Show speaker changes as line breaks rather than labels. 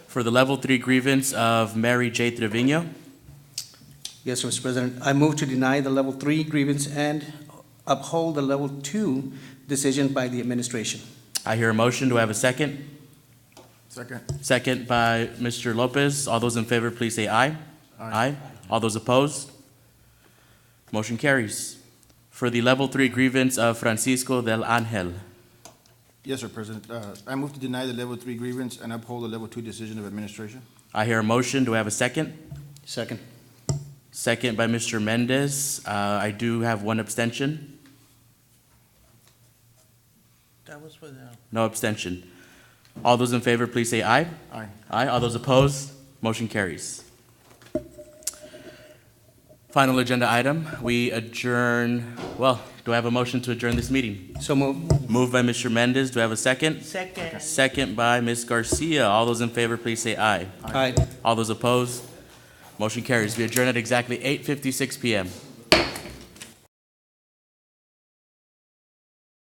for the level three grievance of Mary J. Trevino.
Yes, Mr. President, I move to deny the level three grievance and uphold the level two decision by the administration.
I hear a motion. Do I have a second?
Second.
Second by Mr. Lopez. All those in favor, please say aye. Aye. All those opposed? Motion carries. For the level three grievance of Francisco del Angel.
Yes, sir, President. Uh, I move to deny the level three grievance and uphold the level two decision of administration.
I hear a motion. Do I have a second?
Second.
Second by Mr. Mendez. Uh, I do have one abstention.
That was for the,
No abstention. All those in favor, please say aye.
Aye.
Aye. All those opposed? Motion carries. Final agenda item. We adjourn, well, do I have a motion to adjourn this meeting?
So move.
Moved by Mr. Mendez. Do I have a second?
second.
Second by Ms. Garcia. All those in favor, please say aye.
Aye.
All those opposed? Motion carries. We adjourn at exactly 8:56 PM.